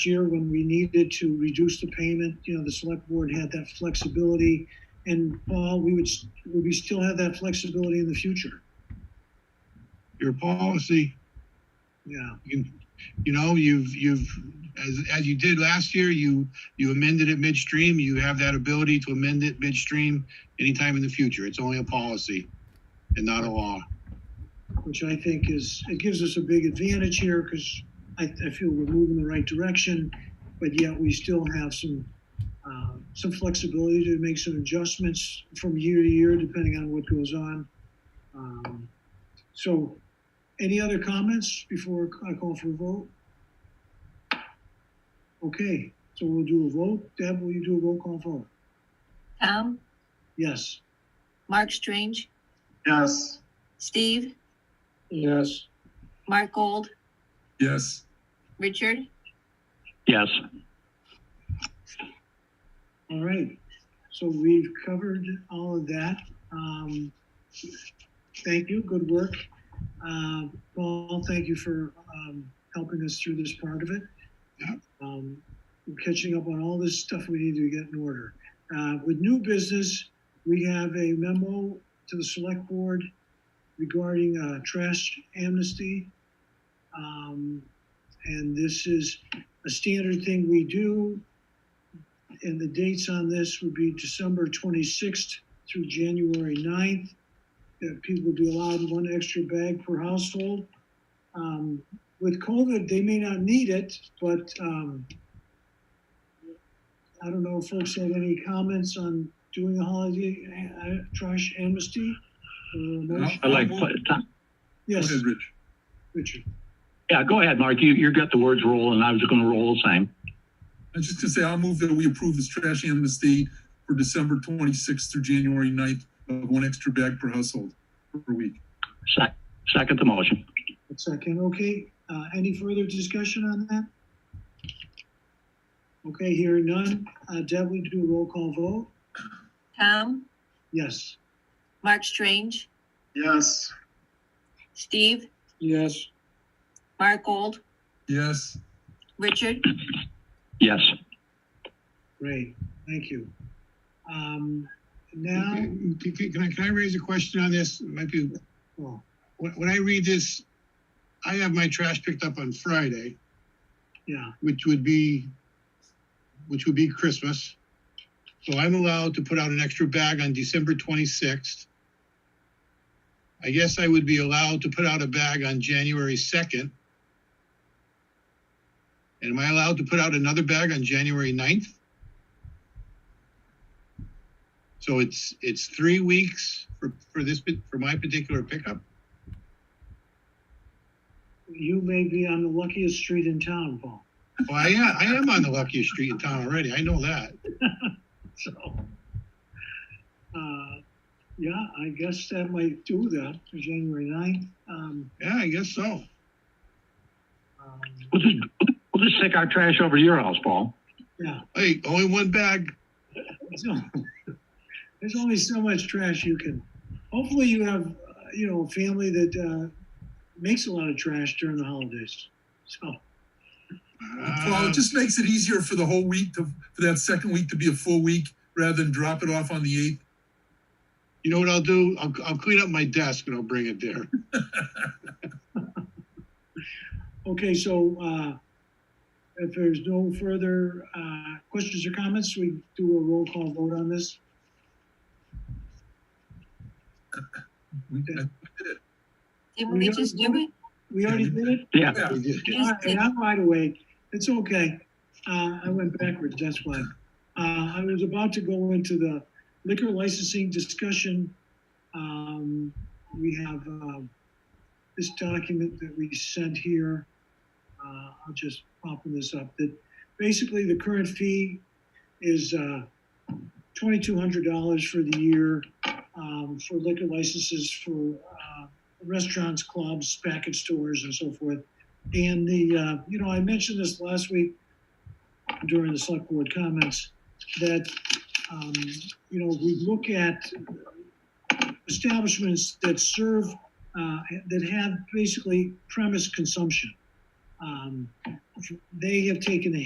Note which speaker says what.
Speaker 1: year when we needed to reduce the payment, you know, the select board had that flexibility. And Paul, we would, s- would we still have that flexibility in the future?
Speaker 2: Your policy,
Speaker 1: Yeah,
Speaker 2: you, you know, you've, you've, as, as you did last year, you, you amended it midstream. You have that ability to amend it midstream anytime in the future. It's only a policy and not a law.
Speaker 1: which I think is, it gives us a big advantage here because I, I feel we're moving in the right direction, but yet we still have some, uh, some flexibility to make some adjustments from year to year, depending on what goes on. Um, So, any other comments before I call for a vote? Okay, so we'll do a vote. Deb, will you do a roll call vote?
Speaker 3: Tom,
Speaker 1: Yes.
Speaker 3: Mark Strange,
Speaker 4: Yes.
Speaker 3: Steve,
Speaker 4: Yes.
Speaker 3: Mark Gold,
Speaker 4: Yes.
Speaker 3: Richard,
Speaker 5: Yes,
Speaker 1: All right, so we've covered all of that. Um, thank you, good work. Uh, Paul, thank you for, um, helping us through this part of it.
Speaker 2: Yep.
Speaker 1: Um, we're catching up on all this stuff we need to get in order. Uh, with new business, we have a memo to the select board regarding, uh, trash amnesty. Um, and this is a standard thing we do and the dates on this would be December 26th through January 9th. That people would be allowed one extra bag per household. Um, with COVID, they may not need it, but um, I don't know if folks had any comments on doing a holiday uh, trash amnesty. or a motion.
Speaker 5: I
Speaker 6: Mm-hmm.
Speaker 5: like, Tom-
Speaker 1: Yes,
Speaker 4: Rich.
Speaker 1: Richard.
Speaker 5: yeah, go ahead, Mark. You, you got the words rolling. I was going to roll the same.
Speaker 6: I was just gonna say, I'll move that we approve this trash amnesty for December twenty-sixth through January 9th of one extra bag per household per week.
Speaker 5: Sec- Second the motion.
Speaker 1: A second, okay. Uh, any further discussion on that? Okay, hearing none. Uh, Deb, we do a roll call vote?
Speaker 3: Tom,
Speaker 1: Yes.
Speaker 3: Mark Strange,
Speaker 4: Yes.
Speaker 3: Steve,
Speaker 1: Yes.
Speaker 3: Mark Gold,
Speaker 6: Yes,
Speaker 3: Richard,
Speaker 5: Yes,
Speaker 1: Great, thank you. Um, now,
Speaker 2: Can, can- can I, can I raise a question on this? It Might be,
Speaker 1: oh,
Speaker 2: when, when I read this, I have my trash picked up on Friday,
Speaker 1: yeah,
Speaker 2: which would be, which would be Christmas. So I'm allowed to put out an extra bag on December twenty-sixth. I guess I would be allowed to put out a bag on January second. And am I allowed to put out another bag on January 9th? So it's, it's three weeks for, for this, pa- for my particular pickup?
Speaker 1: you may be on the luckiest street in town, Paul.
Speaker 2: Well, I am, I am on the luckiest street in town already. I know that.
Speaker 1: So, uh, yeah, I guess that might do that for January ninth. Um,
Speaker 2: Yeah, I guess so.
Speaker 1: um,
Speaker 5: we'll just, we'll just take our trash over to your house, Paul.
Speaker 1: yeah.
Speaker 2: Hey, only one bag.
Speaker 1: So, there's only so much trash you can. Hopefully, you have uh, you know a family that uh, makes a lot of trash during the holidays. So
Speaker 6: well,
Speaker 2: Ah,
Speaker 6: it just makes it easier for the whole week to, for that second week to be a full week rather than drop it off on the eighth.
Speaker 2: You know what I'll do? I'll, I'll clean up my desk and I'll bring it there.
Speaker 1: okay, so uh, if there's no further uh, questions or comments, we do a roll call vote on this.
Speaker 6: We-
Speaker 1: Okay.
Speaker 3: didn't we just do it?
Speaker 1: We already did it.
Speaker 5: Yeah,
Speaker 6: Yeah,
Speaker 2: We did.
Speaker 1: All right, I'm wide awake. It's okay. Uh, I went backwards, that's why. Uh, I was about to go into the liquor licensing discussion. Um, we have, um, this document that we sent here. Uh, I'll just open this up, that basically the current fee is, uh, twenty-two hundred dollars for the year, um, for liquor licenses for, uh, restaurants, clubs, package stores and so forth. And the, uh, you know, I mentioned this last week during the select board comments, that, um, you know, we look at establishments that serve, uh, that have basically premise consumption. Um, They have taken a